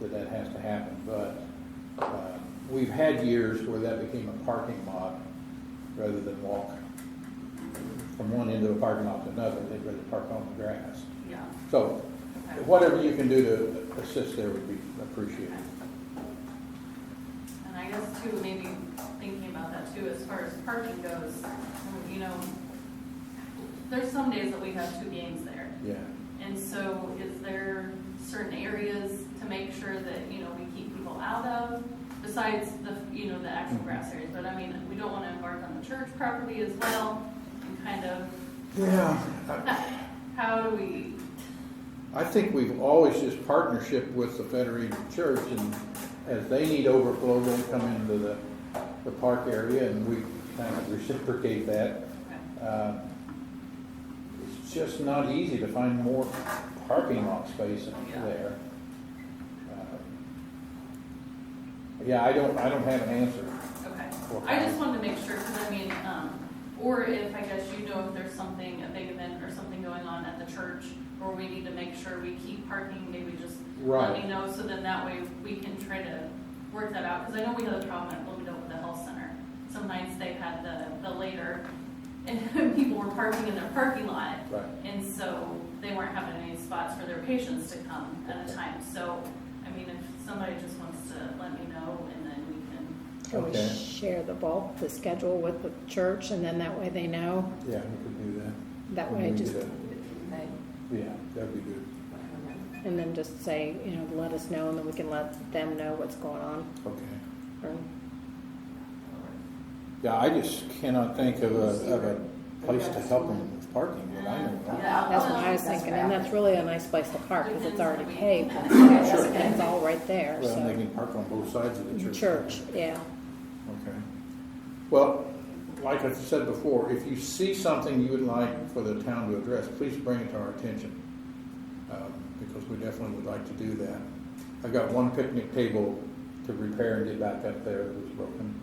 that that has to happen, but, uh, we've had years where that became a parking lot rather than walk from one end of a parking lot to another, they'd rather park on the grass. Yeah. So, Okay. whatever you can do to assist there would be appreciated. And I guess too, maybe thinking about that too, as far as parking goes, you know, there's some days that we have two games there. Yeah, And so is there certain areas to make sure that, you know, we keep people out of besides the, you know, the actual grass areas? But I mean, we don't want to embark on the church property as well and kind of, yeah. I- how do we, I think we've always just partnership with the Federated Church, and as they need overflow, they come into the, the park area, and we kind of reciprocate that. Uh, It's just not easy to find more parking lot space Yeah. there. Uh, Yeah, I don't, I don't have an answer. Okay, Well, I just wanted to make sure, because I mean, um, or if, I guess you know if there's something, a big event or something going on at the church, or we need to make sure we keep parking, maybe just let Right. me know, so then that way we can try to work that out, because I know we had a problem at Bloomingdale with the health center. Some nights they had the, the later, and people were parking in their parking lot, Right. and so they weren't having any spots for their patients to come at a time, so, I mean, if somebody just wants to let me know, and then we can Can we Okay. share the bulk, the schedule with the church, and then that way they know? Yeah, we could do that. That way I We could just, do that. Yeah, that'd be good. and then just say, you know, let us know, and then we can let them know what's going on. Okay. Or- Yeah, I just cannot think of a, of a place to help them with parking, that I know of. Yeah. That's what I was Oh, That's thinking, and that's really a nice place to park, because it's already paved, and Sure. it's all right there, Well, they so. can park on both sides of the church. Church, yeah, Okay. Well, like I said before, if you see something you would like for the town to address, please bring it to our attention. um, Because we definitely would like to do that. I've got one picnic table to repair and get back up there that was broken.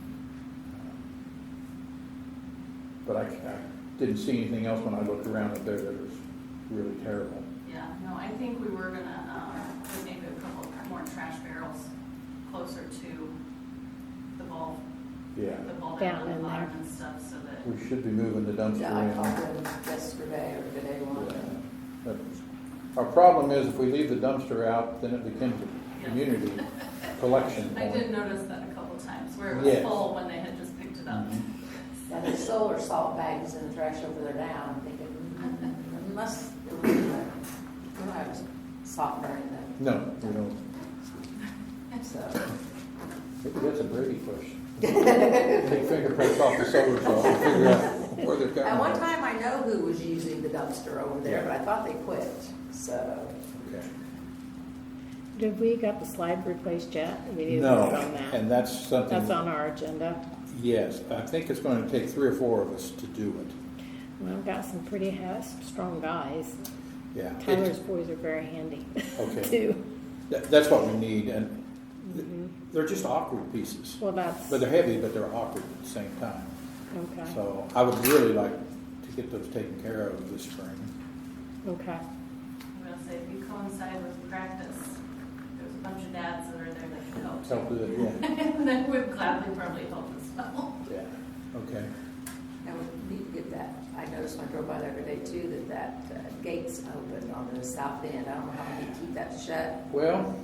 But I, I didn't see anything else when I looked around up there that was really terrible. Yeah, no, I think we were gonna, um, put maybe a couple more trash barrels closer to the ball, Yeah, the ball Down down at the in bottom there. and stuff, so that, we should be moving the dumpster in. Yeah, I called them yesterday or the day one. But Our problem is if we leave the dumpster out, then it becomes a community collection I did point. notice that a couple times, where it was Yes. Mm-hmm. full when they had just picked it up. Now, they sold their salt bags and trash over there now, I'm thinking, mm, unless, we don't have salt burning them, No, we don't. so. That's a Brady question. Take fingerprints off the solar saw and figure out where they're At one coming from. time, I know who was using the dumpster over there, but I thought they quit, so. Okay. did we got the slide replaced yet? We need to No, work on that, and that's something. that's on our agenda. Yes, I think it's going to take three or four of us to do it. Well, I've got some pretty ha- strong guys, Yeah. it's- Tyler's boys are very handy, Okay. too. that- That's what we need and th- they're just awkward pieces. Well, that's, But they're heavy, but they're awkward at the same time. okay, So I would really like to get those taken care of this spring. okay, I'm gonna say, if you coincide with practice, there's a bunch of dads that are there that can help. Help with it, yeah. And that would gladly probably help as well. Yeah, okay. Now, we need to get that, I noticed when I drove by the other day too, that that uh, gate's open on the south end. I don't know how we keep that shut. Well,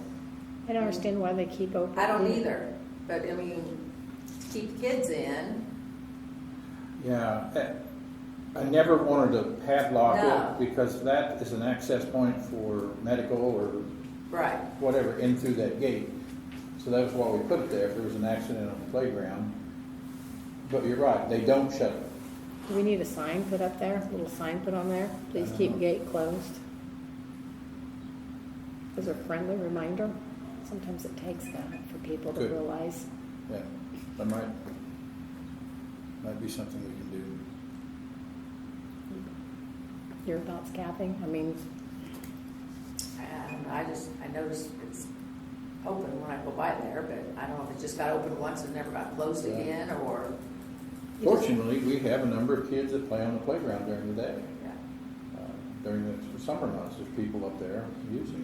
I don't understand why they keep open. I don't either, but I mean, to keep kids in, yeah, eh, I never wanted to padlock No. it because that is an access point for medical or right, whatever in through that gate. So that was why we put it there, if there was an accident on the playground. But you're right, they don't shut it. Do we need a sign put up there, a little sign put on there? Please keep gate closed. As a friendly reminder, sometimes it takes that for people to Good. realize. Yeah, that might, might be something we can do. Your thoughts, Kathy? I mean, and I just, I noticed it's open when I go by there, but I don't know if it just got open once and never got closed Yeah. again, or, You just- Fortunately, we have a number of kids that play on the playground during the day. yeah, Uh, During the summer months, there's people up there using it. I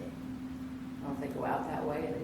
don't know if they go out that way, and